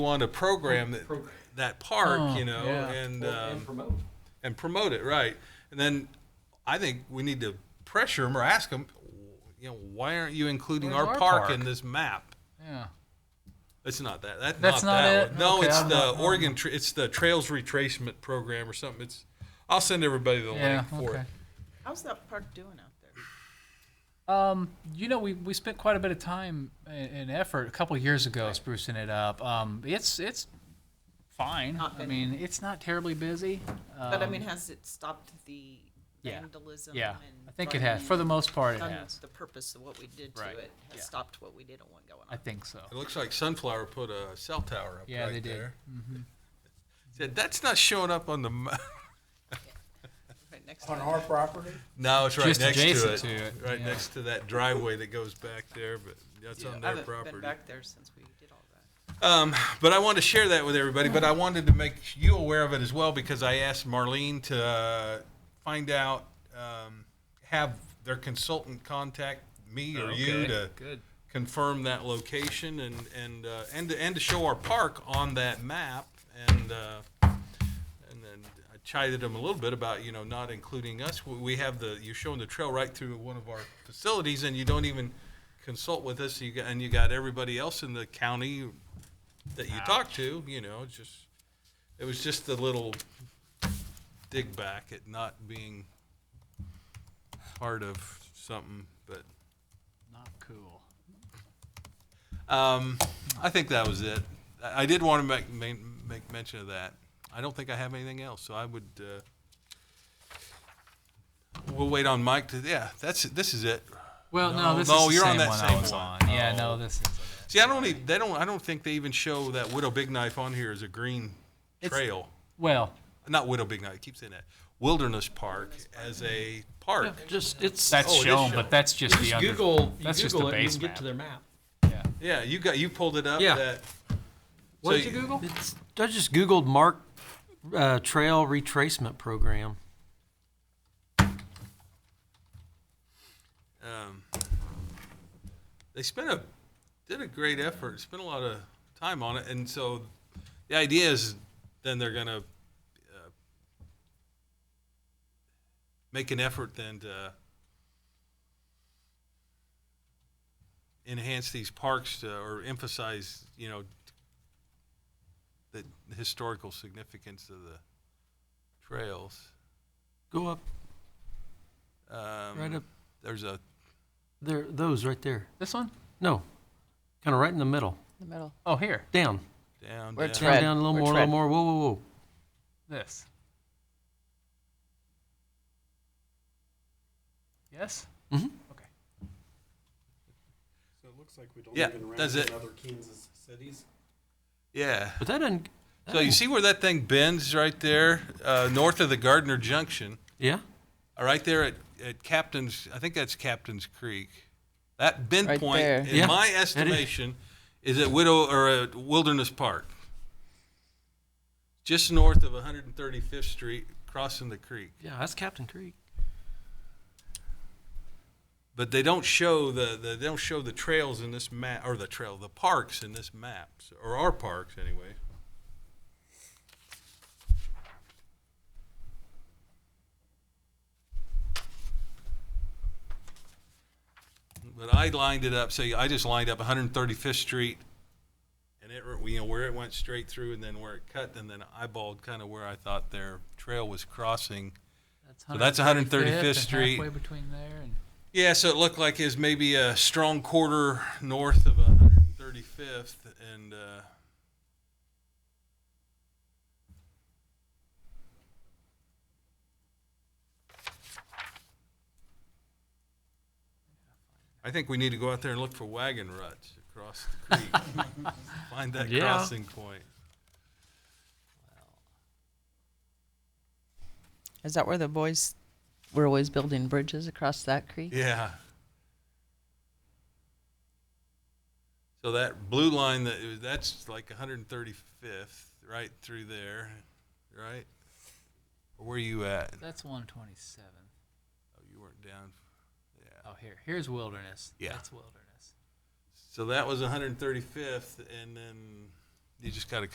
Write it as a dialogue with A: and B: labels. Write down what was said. A: want to program that,
B: Program.
A: that park,
C: Oh,
A: you know,
C: yeah.
A: and
B: Well, and
A: um,
B: promote.
A: and promote it, right? And then I think we need to pressure them or ask them, you know, why aren't you including
C: Where's
A: our,
C: our
A: park,
C: park?
A: in this map?
C: Yeah.
A: It's not that. that
C: That's
A: not,
C: not
A: that
C: it?
A: One. No,
C: Okay,
A: it's
C: I'm
A: the
C: not- I'm-
A: Oregon. Tra- it's the Trails Retracement Program or something. It's. I'll send everybody the
C: Yeah.
A: link for
C: Okay.
A: it.
D: How's that park doing out there?
C: Um, you know, we, we spent quite a bit of time and, and effort a couple of years ago sprucing it up. Um, it's it's fine.
D: Not
C: I
D: bad.
C: mean, it's not terribly busy. Um,
D: But I mean, has it stopped the
C: yeah.
D: vandalism?
C: yeah,
D: and
C: I think it has. For the
D: burning?
C: most part, it
D: Done
C: has.
D: The purpose of what we did to
C: Right,
D: it has
C: yeah.
D: stopped what we didn't want going
C: I
D: on.
C: think so.
A: It looks like Sunflower put a cell tower up
C: Yeah,
A: right
C: they did. Mm-hmm.
A: there. Said that's not showing up on the. ma-"
D: Right next
E: On
D: time.
E: our property?
A: No, it's right
C: Just
A: next
C: adjacent
A: to it.
C: to it,
A: Right
C: yeah.
A: next to that driveway that goes back there, but that's on
D: I
A: their
D: haven't
A: property.
D: been back there since we did all that.
A: Um, but I wanted to share that with everybody. But I wanted to make you aware of it as well because I asked Marlene to uh, find out, um, have their consultant contact me or you
C: Okay,
A: to
C: good.
A: confirm that location and and uh, and to, and to show our park on that map. And uh, and then I chided them a little bit about you know not including us. We- We have the you're showing the trail right through one of our facilities, and you don't even consult with us. You got, and you got everybody else in the county that you talk to. You know, it's just it was just a little dig back at not being part of something, but.
C: Not cool.
A: Um, I think that was it. I I did want to make, make, make mention of that. I don't think I have anything else, so I would, uh, we'll wait on Mike to, yeah, that's, this is it.
C: Well, no,
A: No,
C: this
A: no,
C: is the
A: you're on that
C: same one I
A: same
C: was
A: one. Oh.
C: on. Yeah,
A: No.
C: no, this is.
A: See, I don't, need- they don't, I don't think they even show that Widow Big Knife on here as a green
C: It's-
A: trail.
C: Well,
A: Not Widow Big Knife, I keep saying that. Wilderness Park as a park.
B: Just, it's.
C: that's
A: Oh, it is
C: shown,
A: shown.
C: but that's just the
B: Just
C: under.
B: Google, you
C: that's just
B: Google
C: the
B: it and you
C: base
B: can get
C: map.
B: to their map.
C: Yeah.
A: Yeah, you got, you pulled it up
B: Yeah.
A: that.
C: What
A: so
C: did you Google?
B: It's, I just Googled Mark, uh, Trail Retracement Program.
A: um, they spent a did a great effort, spent a lot of time on it, and so the idea is then they're gonna uh, make an effort then to enhance these parks to, or emphasize, you know, the historical significance of the trails.
B: Go up,
A: Um,
B: right up,
A: There's a
B: there, those right there.
C: This one?
B: No, kind of right in the middle,
F: The middle.
C: Oh, here.
B: down,
A: down.
F: Where
A: down.
F: it's
B: down,
F: Tread.
B: down, a little
F: We're
B: more, a little
F: tread.
B: more, whoa, whoa, whoa.
C: This. Yes.
E: So it looks like we don't
A: Yeah,
E: even rank
A: that's it.
E: in other Kansas cities.
A: yeah.
B: But that doesn't.
A: So you see where that thing bends right there, uh, north of the Gardner Junction,
B: Yeah,
A: uh, right there at, at Captain's, I think that's Captain's Creek. That bend
F: Right
A: point,
F: there.
A: in
B: Yeah,
A: my
B: that is-
A: estimation, is at Widow or at Wilderness Park, just north of 135th Street, crossing the creek.
B: yeah, that's Captain Creek.
A: But they don't show the, the they don't show the trails in this map or the trail the parks in this map or our parks anyway. But I lined it up. Say I just lined up 135th Street, and it you know where it went straight through, and then where it cut, and then eyeballed kind of where I thought their trail was crossing. So that's 135th
C: and
A: Street.
C: Halfway between there and.
A: Yeah, so it looked like it was maybe a strong quarter north of 135th, and uh, I think we need to go out there and look for wagon ruts across the creek. Find that
B: Yeah.
A: crossing point.
F: Is that where the boys were always building bridges across that creek?
A: Yeah. So that blue line that that's like 135th, right through there, right? Or where you at?
C: That's 127.
A: Oh, you weren't down. Yeah.
C: Oh, here. Here's wilderness.
A: Yeah.
C: That's wilderness.
A: So that was 135th, and then you just gotta